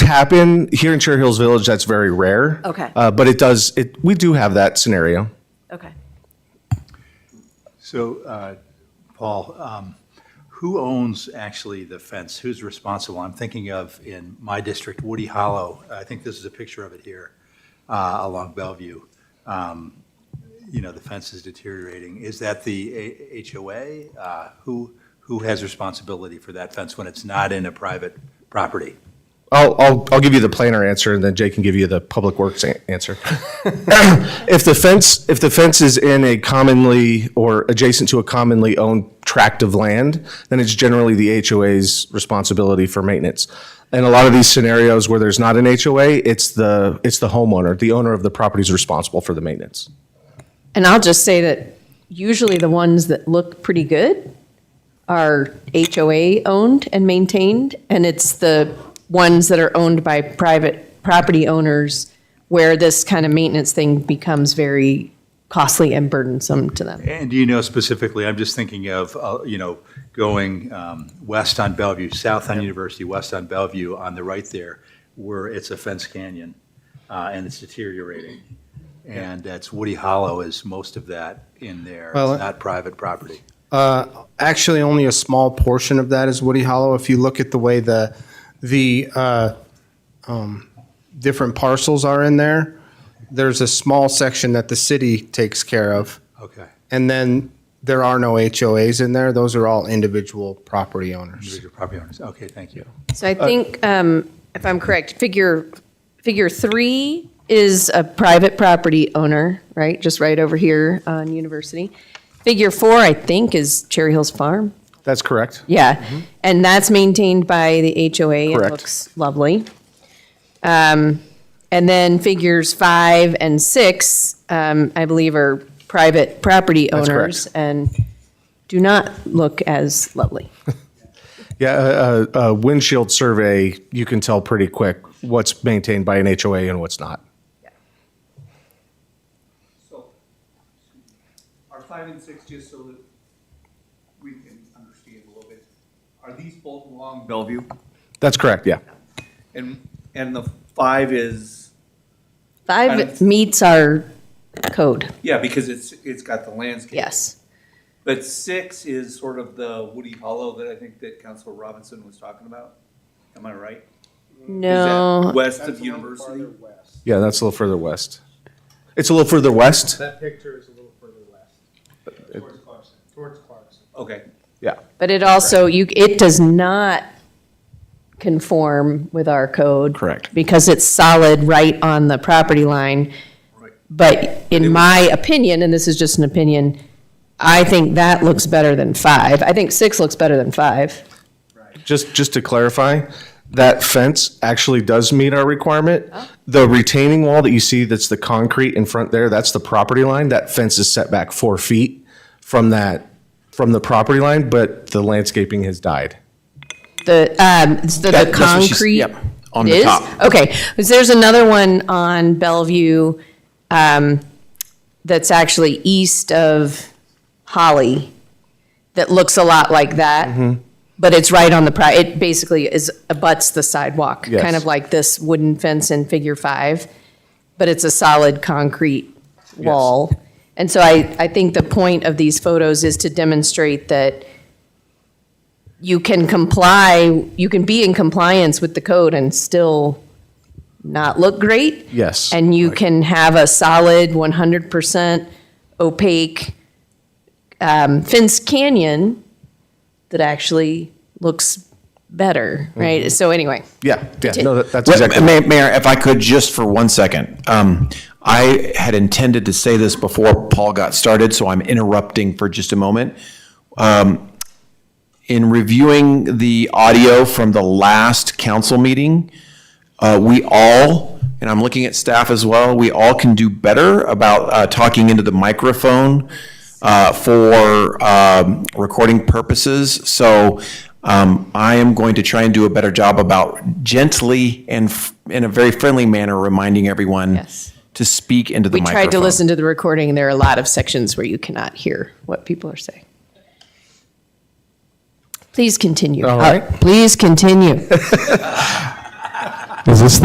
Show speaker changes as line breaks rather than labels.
happen here in Cherry Hills Village. That's very rare.
Okay.
Uh, but it does. It we do have that scenario.
Okay.
So, uh, Paul, um, who owns actually the fence? Who's responsible? I'm thinking of in my district, Woody Hollow. I think this is a picture of it here uh, along Bellevue. Um, You know, the fence is deteriorating. Is that the A- HOA? Uh, Who, who has responsibility for that fence when it's not in a private property?
I'll, I'll, I'll give you the planner answer and then Jay can give you the public works a- answer. If the fence, if the fence is in a commonly or adjacent to a commonly owned tract of land, then it's generally the HOA's responsibility for maintenance. In a lot of these scenarios where there's not an HOA, it's the, it's the homeowner, the owner of the property is responsible for the maintenance.
And I'll just say that usually the ones that look pretty good are HOA owned and maintained, and it's the ones that are owned by private property owners where this kind of maintenance thing becomes very costly and burdensome to them.
And do you know specifically, I'm just thinking of, uh, you know, going um, west on Bellevue, south on University, west on Bellevue, on the right there, where it's a fence canyon, uh, and it's deteriorating. And that's Woody Hollow is most of that in there.
Well,
It's not private property.
actually only a small portion of that is Woody Hollow. If you look at the way the the uh, um, different parcels are in there, there's a small section that the city takes care of,
Okay.
and then there are no HOAs in there. Those are all individual property owners.
Individual property owners. Okay, thank you.
So I think, um, if I'm correct, figure, figure three is a private property owner, right? Just right over here on University. Figure four, I think, is Cherry Hills Farm.
That's correct.
Yeah, and that's maintained by the HOA. It
Mm-hmm. Correct.
looks lovely. Um, And then figures five and six, um, I believe, are private property
That's correct.
owners and do not look as lovely.
Yeah, a, a, a windshield survey, you can tell pretty quick what's maintained by an HOA and what's not.
So, are five and six, just so that we can understand a little bit, are these both along Bellevue?
That's correct, yeah.
And, and the five is, Kind
Five
of-
meets our code,
yeah, because it's, it's got the landscape.
yes.
But six is sort of the Woody Hollow that I think that Council Robinson was talking about. Am I right? Is that
No,
West of University?
Yeah, that's a little further west. It's a little further west.
That picture is a little further west. Towards Clarkson. Towards Clarkson.
Okay.
Yeah.
but it also, you, it does not conform with our code.
Correct.
Because it's solid right on the property line.
Right.
But in my opinion, and this is just an opinion, I think that looks better than five. I think six looks better than five.
Just, just to clarify, that fence actually does meet our requirement. The retaining wall that you see that's the concrete in front there, that's the property line. That fence is set back four feet from that, from the property line, but the landscaping has died.
The, um, it's the, the
That- that's what she's-
concrete.
yep, on
It
the
is?
top.
Okay, 'cause there's another one on Bellevue, um, that's actually east of Holly that looks a lot like
Mm-hmm.
that. But it's right on the pri, it basically is, abuts the sidewalk,
Yes.
kind of like this wooden fence in figure five. But it's a solid concrete wall. And so I, I think the point of these photos is to demonstrate that you can comply, you can be in compliance with the code and still not look great.
Yes.
And you can have a solid 100% opaque um, fence canyon that actually looks better, right? So anyway,
Yeah, yeah, no, that- that's
Well,
exactly.
Ma- Mayor, if I could, just for one second. Um, I had intended to say this before Paul got started, so I'm interrupting for just a moment. Um, In reviewing the audio from the last council meeting, uh, we all, and I'm looking at staff as well, we all can do better about uh, talking into the microphone uh, for um, recording purposes. So um, I am going to try and do a better job about gently and f- in a very friendly manner reminding everyone
Yes.
to speak into the
we
microphone.
tried to listen to the recording. and There are a lot of sections where you cannot hear what people are saying. Please continue.
All right.
Uh, Please continue.
Is this